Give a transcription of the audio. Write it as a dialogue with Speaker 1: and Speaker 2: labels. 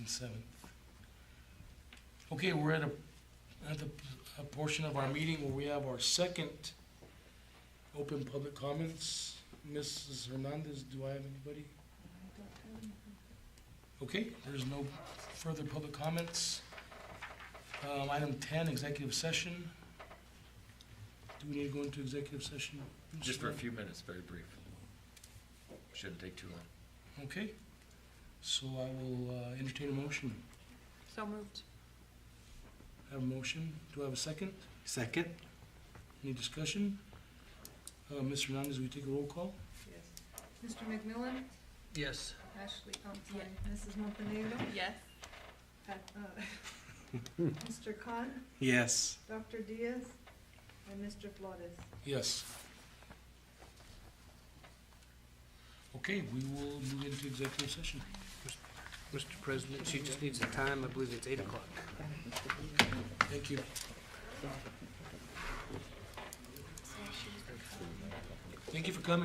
Speaker 1: and seventh. Okay, we're at a, at the, a portion of our meeting where we have our second open public comments. Mrs. Hernandez, do I have anybody? Okay, there's no further public comments. Um, item ten, executive session. Do we need to go into executive session?
Speaker 2: Just for a few minutes, very brief. Shouldn't take too long.
Speaker 1: Okay, so I will uh, entertain a motion.
Speaker 3: So moved.
Speaker 1: Have a motion. Do I have a second?
Speaker 4: Second?
Speaker 1: Any discussion? Uh, Ms. Hernandez, will you take a roll call?
Speaker 5: Mr. McMillan?
Speaker 1: Yes.
Speaker 5: Ashley, I'm sorry, Mrs. Montenegro?
Speaker 3: Yes.
Speaker 5: uh, uh, Mr. Khan,
Speaker 4: Yes.
Speaker 5: Dr. Diaz, and Mr. Flores.
Speaker 1: Yes. Okay, we will move into executive session.
Speaker 6: Mr. President, she just needs a time, I believe it's eight o'clock.
Speaker 1: Thank you. Thank you for coming.